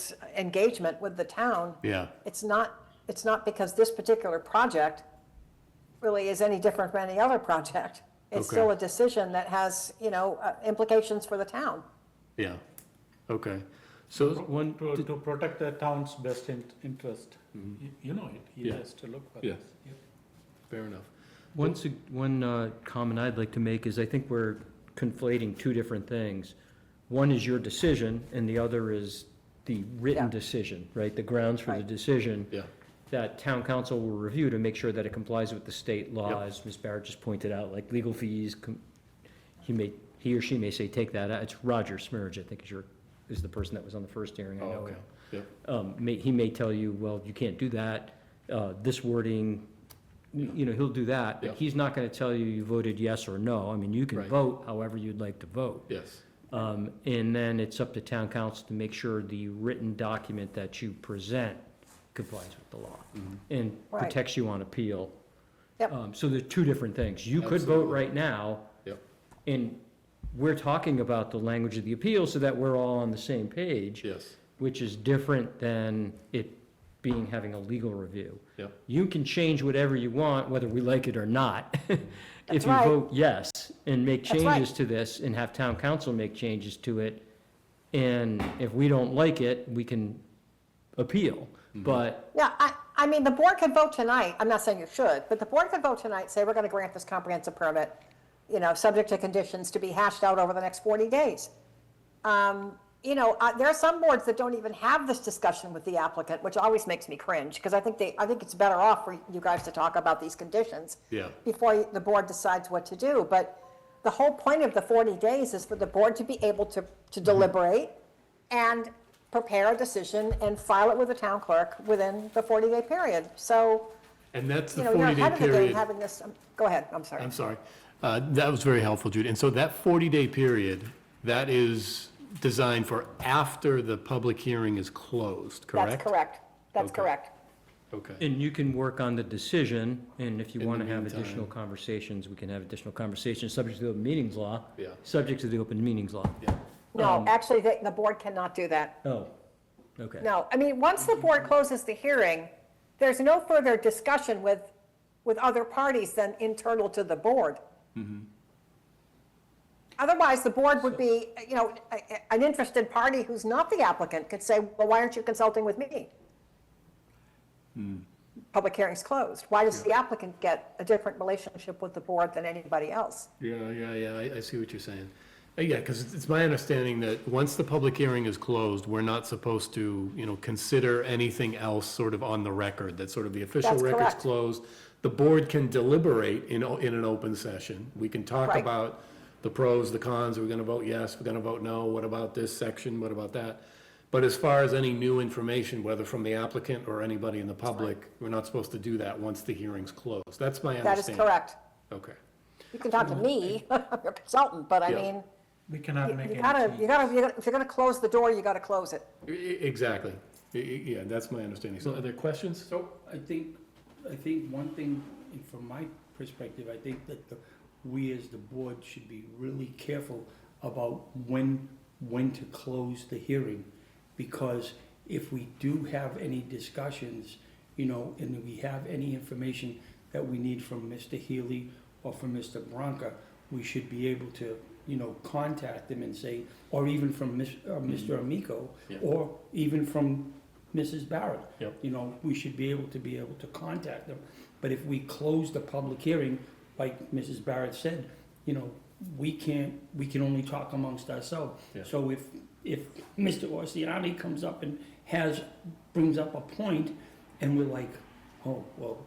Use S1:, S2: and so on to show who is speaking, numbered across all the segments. S1: this engagement with the town.
S2: Yeah.
S1: It's not, it's not because this particular project really is any different from any other project. It's
S2: Okay.
S1: still a decision that has, you know, uh, implications for the town.
S2: Yeah, okay. So one,
S3: To, to protect the town's best in- interest.
S4: Mm-hmm.
S3: You- You know it, he
S2: Yeah.
S3: has to look for
S2: Yeah.
S3: this. Yeah.
S2: fair enough.
S5: One, sug- one uh, comment I'd like to make is I think we're conflating two different things. One is your decision, and the other is the
S1: Yeah.
S5: written decision, right? The grounds for the
S1: Right.
S5: decision.
S2: Yeah.
S5: That town council will review to make sure that it complies with the state laws. Ms. Barrett just pointed out, like legal fees, com- he may, he or she may say, take that out. It's Roger Smirge, I think is your, is the person that was on the first hearing. I
S2: Oh,
S5: know
S2: okay,
S5: him
S2: yep,
S5: um, may, he may tell you, well, you can't do that, uh, this wording, you you know, he'll do that,
S2: Yeah.
S5: but he's not gonna tell you you voted yes or no, I mean, you can
S2: Right.
S5: vote however you'd like to vote.
S2: yes,
S5: Um, and then it's up to town council to make sure the written document that you present complies with the law
S2: Mm-hmm.
S5: and
S1: Right.
S5: protects you on appeal.
S1: Yep.
S5: Um, so there's two different things, you could vote
S2: Absolutely.
S5: right now,
S2: yep,
S5: and we're talking about the language of the appeal so that we're all on the same page
S2: yes,
S5: which is different than it being, having a legal review.
S2: yep,
S5: You can change whatever you want, whether we like it or not. If
S1: That's
S5: you
S1: right.
S5: vote yes and make
S1: That's right.
S5: changes to this and have town council make changes to it, and if we don't like it, we can appeal.
S2: Mm-hmm.
S5: But,
S1: Yeah, I, I mean, the board could vote tonight, I'm not saying you should, but the board could vote tonight, say, we're gonna grant this comprehensive permit, you know, subject to conditions to be hashed out over the next forty days. Um, you know, uh, there are some boards that don't even have this discussion with the applicant, which always makes me cringe, because I think they, I think it's better off for you guys to talk about these conditions.
S2: Yeah.
S1: Before you- the board decides what to do, but the whole point of the forty days is for the board to be able to,
S2: Mm-hmm.
S1: to deliberate and prepare a decision and file it with the town clerk within the forty-day period. So,
S2: and that's
S1: you
S2: the
S1: know, you're
S2: forty-day
S1: ahead of the game
S2: period.
S1: having this, um, go ahead, I'm sorry.
S2: I'm sorry, uh, that was very helpful, Judy. And so that forty-day period, that is designed for after the public hearing is closed, correct?
S1: That's correct, that's
S2: Okay.
S1: correct.
S2: Okay,
S5: and you can work on the decision, and if you
S2: In the
S5: want to have
S2: meantime.
S5: additional conversations, we can have additional conversations, subject to the open meetings law.
S2: Yeah.
S5: Subject to the open meetings law.
S2: yeah, Um,
S1: No, actually, the, the board cannot do that.
S5: Oh, okay.
S1: No, I mean, once the board closes the hearing, there's no further discussion with, with other parties than internal to the board.
S2: Mm-hmm.
S1: Otherwise, the board would be, you know, a- a- an interested party who's not the applicant could say, well, why aren't you consulting with me?
S2: Hmm.
S1: Public hearing's closed. Why does the applicant get a different relationship with the board than anybody else?
S2: yeah, yeah, yeah, I, I see what you're saying. Uh, Yeah, because it's, it's my understanding that once the public hearing is closed, we're not supposed to, you know, consider anything else sort of on the record, that's sort of the official
S1: That's
S2: record's
S1: correct.
S2: closed. The board can deliberate in, o- in an open session. We can talk
S1: Right.
S2: about the pros, the cons, we're gonna vote yes, we're gonna vote no, what about this section, what about that? But as far as any new information, whether from the applicant or anybody in the public, we're not supposed to do that once the hearing's closed. That's my
S1: That is
S2: understanding.
S1: correct.
S2: Okay.
S1: You can talk to me, I'm your consultant, but I
S2: Yeah.
S1: mean,
S3: We cannot make
S1: you
S3: any
S1: gotta, you
S3: change.
S1: gotta, you gotta- if you're gonna close the door, you gotta close it.
S2: E- e- Exactly. E- e- Yeah, that's my understanding. So are there questions?
S4: So I think, I think one thing, and from my perspective, I think that the, we as the board should be really careful about when, when to close the hearing. Because if we do have any discussions, you know, and we have any information that we need from Mr. Healy or from Mr. Bronca, we should be able to, you know, contact them and say, or even from Ms., uh, Mr. Amico,
S2: Yeah.
S4: or even from Mrs. Barrett.
S2: Yep.
S4: You know, we should be able to be able to contact them. But if we close the public hearing, like Mrs. Barrett said, you know, we can't, we can only talk amongst ourselves.
S2: Yeah.
S4: So if, if Mr. Orsiani comes up and has, brings up a point, and we're like, oh, well,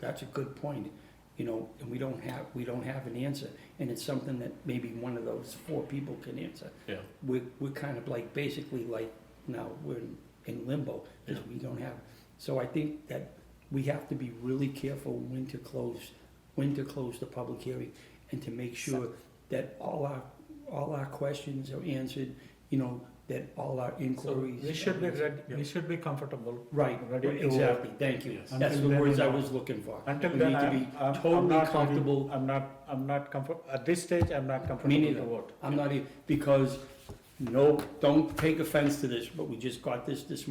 S4: that's a good point, you know, and we don't have, we don't have an answer, and it's something that maybe one of those four people can answer
S2: Yeah.
S4: we're, we're kind of like, basically like, now we're in- in limbo, because we don't have, so I think that we have to be really careful when to close, when to close the public hearing, and to make sure that all our, all our questions are answered, you know, that all our inquiries.
S3: We should be ready, we should be comfortable.
S4: Right,
S3: ready to-
S4: exactly, thank you,
S2: Yes.
S4: that's
S3: Until
S4: the
S3: then,
S4: words I
S3: uh,
S4: was looking for.
S3: Until
S4: We
S3: then,
S4: need to
S3: I'm,
S4: be
S3: I'm I'm
S4: Totally
S3: not comfortable,
S4: comfortable
S3: I'm not, I'm not comfort, at this stage, I'm not
S4: Me
S3: comfortable to
S4: neither.
S3: vote.
S4: I'm not, e- because, no, don't take offense to this, but we just got this this morning.